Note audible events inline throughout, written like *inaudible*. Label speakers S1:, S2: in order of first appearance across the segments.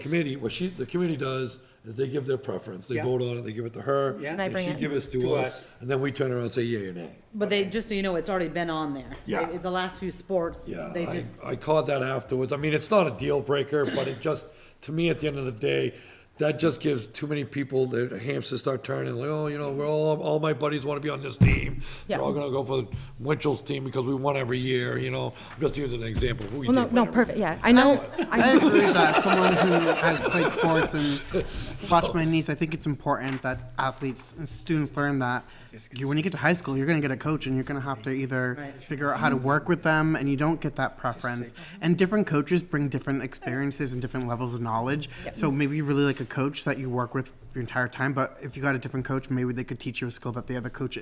S1: committee, what she, the committee does is they give their preference, they
S2: Yeah.
S1: vote on it, they give it to her.
S2: Yeah. And
S1: And
S2: I
S1: she
S3: bring it.
S1: give us to
S2: To
S1: us,
S2: us.
S1: and then we turn around and say yea or nay.
S4: But they, just so you know, it's already been on there.
S1: Yeah.
S4: They- The last few sports,
S1: Yeah,
S4: they
S1: I,
S4: just,
S1: I caught that afterwards. I mean, it's not a deal breaker, but it just, to me, at the end of the day, that just gives too many people, their hamsters start turning, like, oh, you know, we're all, all my buddies wanna be on this team. They're
S3: Yeah.
S1: all gonna go for Winchell's team because we won every year, you know, I'm just using an example. who we
S3: Well, no,
S1: did win
S3: no,
S1: every
S3: perfect,
S1: year.
S3: yeah, I know, *laughs*
S5: I
S3: I,
S5: agree with that. As Someone who has played sports and watched my niece, I think it's important that athletes and students learn that you, when you get to high school, you're going to get a coach and you're going to have to either
S4: Right.
S5: figure out how to work with them, and you don't get that preference. And different coaches bring different experiences and different levels of knowledge. So maybe you really like a coach that you work with your entire time, but if you got a different coach, maybe they could teach you a skill that the other coach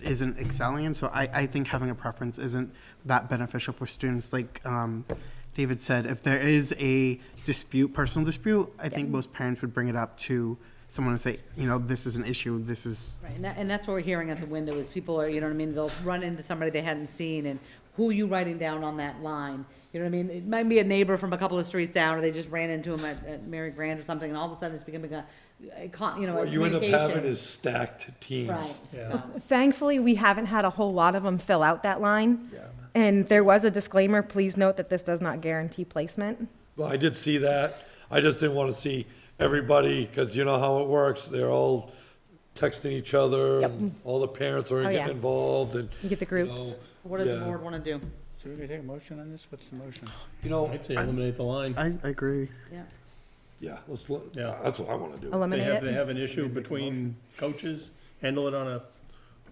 S5: isn't excelling in. So I, I think having a preference isn't that beneficial for students. Like um, David said, if there is a dispute, personal dispute, I think most parents would bring it up to someone and say, you know, this is an issue. This is
S4: right, and that, and that's what we're hearing at the window is people are, you know what I mean? They'll run into somebody they hadn't seen and who are you writing down on that line? You know what I mean? It might be a neighbor from a couple of streets down or they just ran into him at, at Mary Grant or something and all of a sudden it's becoming a, a con, you know, a
S1: What you end up
S4: communication.
S1: having is stacked
S4: Right,
S1: teams.
S4: so.
S3: thankfully, we haven't had a whole lot of them fill out that line.
S1: Yeah.
S3: And there was a disclaimer, please note that this does not guarantee placement.
S1: Well, I did see that. I just didn't want to see everybody, because you know how it works. They're all texting each other, and all the parents are
S3: Oh, yeah.
S1: getting involved, and
S3: You get the groups.
S1: know,
S4: What does the
S1: yeah.
S4: board wanna do?
S2: So we take a motion on this? What's the motion?
S1: You know,
S6: I'd say eliminate the line.
S5: I, I agree.
S4: Yeah.
S1: yeah, let's. Look, yeah,
S6: Yeah.
S1: that's what I want to do.
S6: They
S3: Eliminate
S6: have, they
S3: it,
S6: have an issue between coaches, handle it on a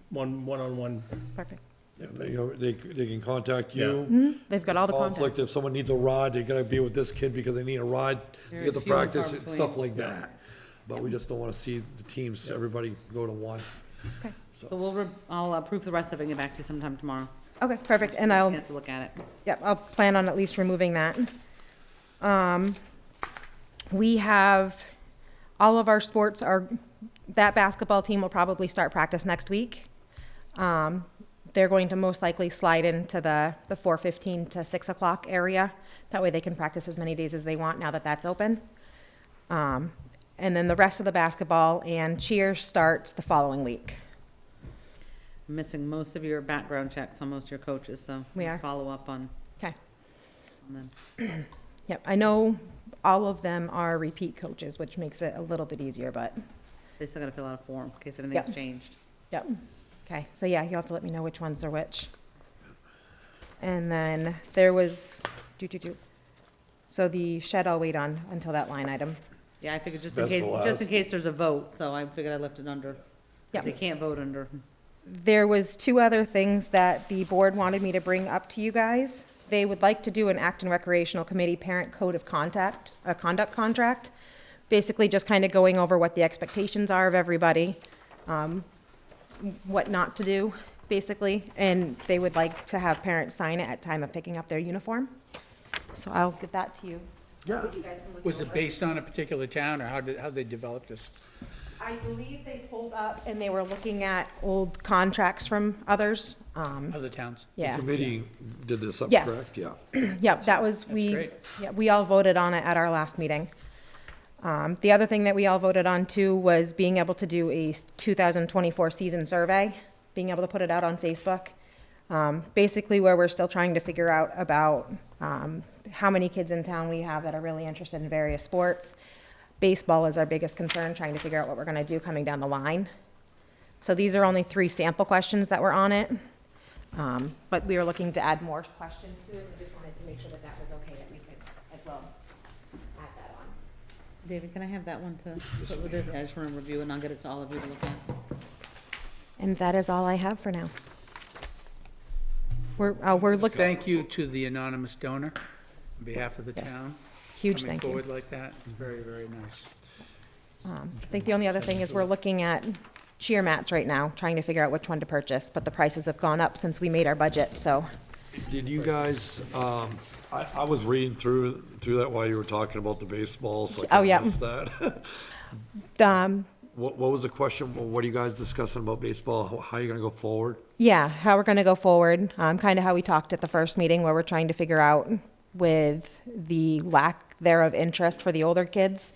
S6: one, one-on-one.
S3: perfect.
S1: Yeah, they, you know, they, they can contact you.
S3: They've got Mm-hmm. all the content.
S1: Conflict. If someone needs a ride, they gotta be with this kid because they need a ride to
S4: Very
S1: get the
S4: few and far
S1: practice and stuff
S4: between.
S1: like that. But we just don't want to see the teams. Everybody go to one.
S4: So we'll, re- I'll approve the rest of it and get back to you sometime tomorrow.
S3: Okay, perfect, and I'll,
S4: Chance to look at it.
S3: yep, I'll plan on at least removing that. Um, We have, all of our sports are, that basketball team will probably start practice next week. Um, They're going to most likely slide into the, the four fifteen to six o'clock area. That way they can practice as many days as they want now that that's open. Um, And then the rest of the basketball and cheer starts the following week.
S4: missing most of your background checks on most of your coaches, so.
S3: We
S4: we'll
S3: are.
S4: Follow up on
S3: Okay.
S4: on them.
S3: Yep, I know all of them are repeat coaches, which makes it a little bit easier, but,
S4: They still gotta fill out a form in case
S3: Yeah.
S4: anything's changed.
S3: yep. Okay, so yeah, you'll have to let me know which ones are which. And then there was, do, do, do. So the shed I'll wait on until that line item.
S4: Yeah, I figured just in
S1: That's the
S4: case, just in
S1: last.
S4: case there's a vote, so I figured I left it under. 'cause
S3: Yeah.
S4: They can't vote under.
S3: There was two other things that the board wanted me to bring up to you guys. They would like to do an Acton Recreational Committee Parent Code of Contact, uh, Conduct Contract. Basically just kind of going over what the expectations are of everybody, um, what not to do, basically. And they would like to have parents sign it at time of picking up their uniform. So I'll give that to you.
S1: Yeah.
S3: You guys can look
S2: Was
S3: over.
S2: it based on a particular town, or how did, how they develop this?
S3: I believe they pulled up and they were looking at old contracts from others. Um,
S2: Other towns?
S3: yeah.
S1: Committee did this up,
S3: Yes.
S1: correct? Yeah.
S3: *coughs* Yep, that was, we,
S2: great.
S3: yeah, we all voted on it at our last meeting. Um, the other thing that we all voted on too was being able to do a two thousand twenty-four season survey, being able to put it out on Facebook. Um, basically where we're still trying to figure out about, um, how many kids in town we have that are really interested in various sports. Baseball is our biggest concern, trying to figure out what we're gonna do coming down the line. So these are only three sample questions that were on it. Um, But we are looking to add more questions to it, we just wanted to make sure that that was okay, that we could as well add that on.
S4: David, can I have that one to, put with this? I just wanna review and I'll get it to all of you to look at.
S3: And that is all I have for now. We're, uh, we're looking,
S2: Thank you to the anonymous donor on behalf of the
S3: Yes.
S2: town.
S3: huge thank
S2: Coming
S3: you.
S2: forward like that, It's very, very nice.
S3: Um, I think the only other thing is we're looking at cheer mats right now, trying to figure out which one to purchase, but the prices have gone up since we made our budget, so.
S1: Did you guys, um, I, I was reading through, through that while you were talking about the baseball, so I
S3: Oh,
S1: kinda
S3: yeah.
S1: missed that. *laughs*
S3: um,
S1: What, what was the question? What are you guys discussing about baseball? How- How are you gonna go forward?
S3: Yeah, how we're going to go forward, um, kind of how we talked at the first meeting where we're trying to figure out with the lack they're of interest for the older kids.